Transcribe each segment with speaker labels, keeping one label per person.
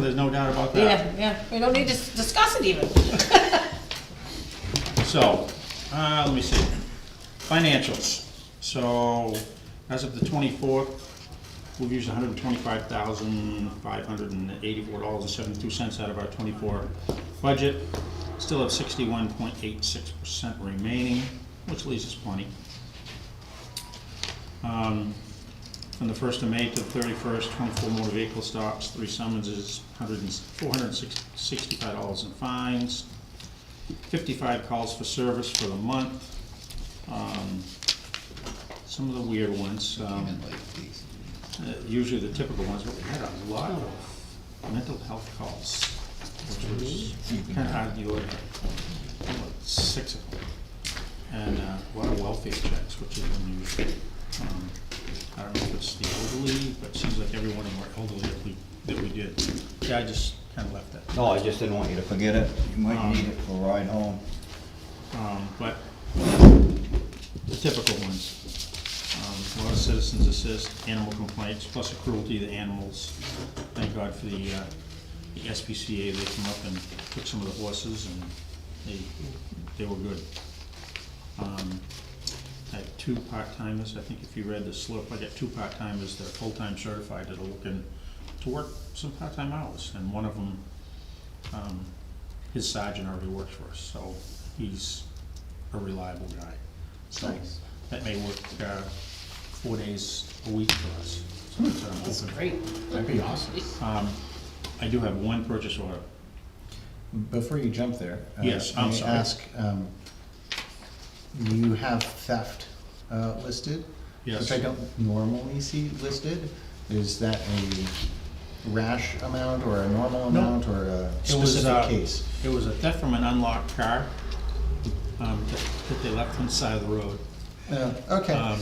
Speaker 1: there's no doubt about that.
Speaker 2: Yeah, yeah, we don't need to s- discuss it even.
Speaker 1: So, uh, let me see, financials. So, as of the twenty-fourth, we've used hundred and twenty-five thousand, five hundred and eighty-four dollars and seventy-two cents out of our twenty-four budget. Still have sixty-one point eight six percent remaining, which leaves us plenty. Um, From the first of May to the thirty-first, twenty-four motor vehicle stops, three summonses, hundred and, four hundred and sixty-five dollars in fines, fifty-five calls for service for the month. Um, Some of the weird ones, um, uh, usually the typical ones, but we had a lot of mental health calls, which was kind of hard to deal with, about six of them. And uh, a lot of welfare checks, which is unusual. Um, I don't know if it's the elderly, but it seems like every one of them were elderly that we, that we did. Yeah, I just kind of left that.
Speaker 3: No, I just didn't want you to forget it. You might need it for a ride home.
Speaker 1: um, but the typical ones. Um, A lot of citizens assist, animal complaints, plus the cruelty to animals. Thank God for the, uh, the SPCA, they came up and took some of the horses and they, they were good. Um, I have two part-timers, I think if you read the slip, I got two part-timers that are full-time certified that are looking to work some part-time hours. And one of them, um, his sergeant already works for us, so he's a reliable guy. So that may work, uh, four days a week for us. So that's what I'm
Speaker 2: That's
Speaker 1: hoping.
Speaker 2: great.
Speaker 4: That'd be awesome.
Speaker 1: Um, I do have one purchase order.
Speaker 4: Before you jump there. uh,
Speaker 1: Yes, I'm
Speaker 4: may I
Speaker 1: sorry.
Speaker 4: Ask, um, you have theft uh, listed?
Speaker 1: Yes.
Speaker 4: Which I don't normally see listed. Is that a rash amount or a normal
Speaker 1: No.
Speaker 4: amount or a
Speaker 1: It was,
Speaker 4: specific
Speaker 1: uh,
Speaker 4: case?
Speaker 1: It was a theft from an unlocked car, um, that, that they left on the side of the road.
Speaker 4: Uh, Okay,
Speaker 1: Um,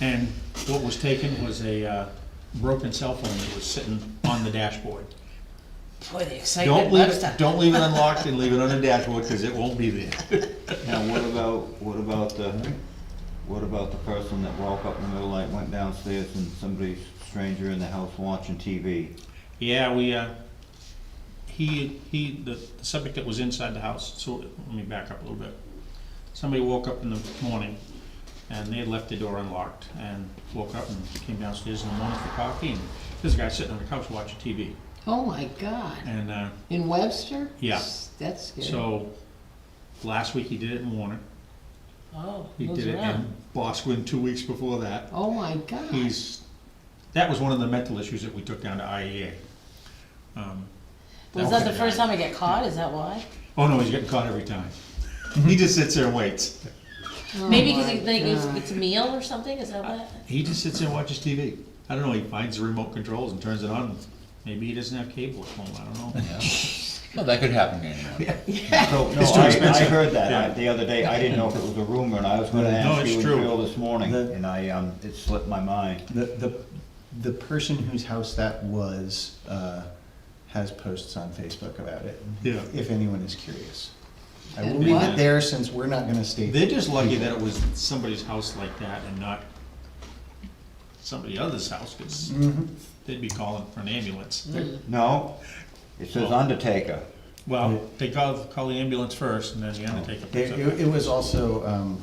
Speaker 1: and what was taken was a, uh, broken cell phone that was sitting on the dashboard.
Speaker 2: Boy, the excitement
Speaker 1: Don't leave
Speaker 2: loves
Speaker 1: it,
Speaker 2: that.
Speaker 1: don't leave it unlocked and leave it on the dashboard, cause it won't be there.
Speaker 3: Now, what about, what about the, what about the person that woke up in the middle of the night, went downstairs and somebody's stranger in the house watching TV?
Speaker 1: Yeah, we, uh, he, he, the the subject that was inside the house, so let me back up a little bit. Somebody woke up in the morning and they had left the door unlocked and woke up and came downstairs in the morning for coffee and this guy sitting on the couch watching TV.
Speaker 5: Oh my God.
Speaker 1: And, uh,
Speaker 5: In Webster?
Speaker 1: Yeah.
Speaker 5: That's scary.
Speaker 1: so, last week he did it in Warner,
Speaker 2: Oh,
Speaker 1: he
Speaker 2: moves
Speaker 1: did it
Speaker 2: around.
Speaker 1: in Bosquen two weeks before that.
Speaker 5: Oh my God.
Speaker 1: He's, that was one of the mental issues that we took down to IEA. Um,
Speaker 2: Was that the first time I get caught, is that why?
Speaker 1: Oh no, he's getting caught every time. He just sits there and waits.
Speaker 5: Oh
Speaker 2: Maybe because
Speaker 5: my
Speaker 2: it like, it's-
Speaker 5: God.
Speaker 2: it's a meal or something, is that what?
Speaker 1: He just sits there and watches TV. I don't know, he finds the remote controls and turns it on. Maybe he doesn't have cable at home, I don't know.
Speaker 6: No, that could happen to anyone.
Speaker 3: So, no,
Speaker 1: It's too
Speaker 3: I, I
Speaker 1: expensive.
Speaker 3: heard that
Speaker 1: Yeah.
Speaker 3: I- the other day. I didn't know if it was a rumor, and I was gonna ask
Speaker 1: it's
Speaker 3: you and
Speaker 1: true.
Speaker 3: Phil this morning,
Speaker 4: The-
Speaker 3: and I, um, it slipped my mind.
Speaker 4: the, the, the person whose house that was uh, has posts on Facebook about it.
Speaker 1: Yeah.
Speaker 4: If anyone is curious. I will
Speaker 5: And
Speaker 4: leave
Speaker 1: what?
Speaker 4: it there since we're not gonna state.
Speaker 1: They're just lucky that it was somebody's house like that and not somebody else's house, because they'd be calling for an ambulance.
Speaker 3: No, it says Undertaker.
Speaker 1: Well, they call, call the ambulance first and then the undertaker picks
Speaker 4: It,
Speaker 1: up.
Speaker 4: it- it was also, um,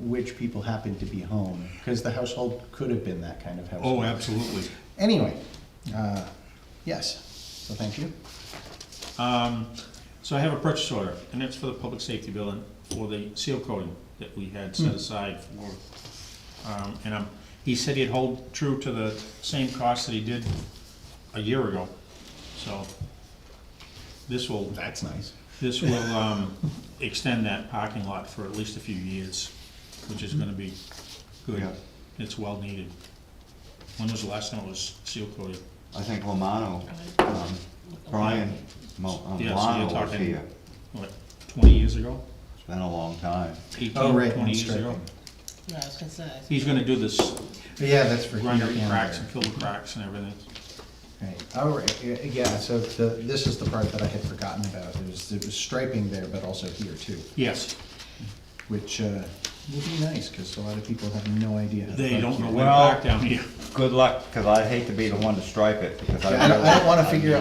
Speaker 4: which people happened to be home, because the household could have been that kind of household.
Speaker 1: Oh, absolutely.
Speaker 4: Anyway, uh, yes, so thank you.
Speaker 1: Um, so I have a purchase order, and it's for the public safety building for the seal coating that we had
Speaker 3: Hmm.
Speaker 1: set aside for, um, and um, he said he'd hold true to the same cost that he did a year ago, so this will,
Speaker 4: That's nice.
Speaker 1: this will, um, extend that parking lot for at least a few years, which is gonna be good.
Speaker 3: Yeah.
Speaker 1: It's well needed. When was the last time it was seal coated?
Speaker 3: I think Romano, um, Brian, Mo-
Speaker 1: Yeah,
Speaker 3: um,
Speaker 1: so you're
Speaker 3: Milano was
Speaker 1: talking-
Speaker 3: here.
Speaker 1: What, twenty years ago?
Speaker 3: It's been a long time.
Speaker 1: Eighteen,
Speaker 4: Oh, right,
Speaker 1: twenty
Speaker 4: and
Speaker 1: years ago?
Speaker 4: striping.
Speaker 2: No, I was gonna say.
Speaker 1: He's gonna do this
Speaker 4: But yeah, that's for here
Speaker 1: grind
Speaker 4: and
Speaker 1: up the cracks and
Speaker 4: there.
Speaker 1: fill the cracks and everything.
Speaker 4: Right, all right, yeah, yeah, so the, this is the part that I had forgotten about, it was, it was striping there, but also here too,
Speaker 1: Yes,
Speaker 4: which, uh, would be nice, because a lot of people have no idea. how to
Speaker 1: they
Speaker 4: park
Speaker 1: don't
Speaker 4: here.
Speaker 1: know where to park down here.
Speaker 7: good luck, cause I'd hate to be the one to stripe it, because I
Speaker 3: I don't, I don't wanna figure out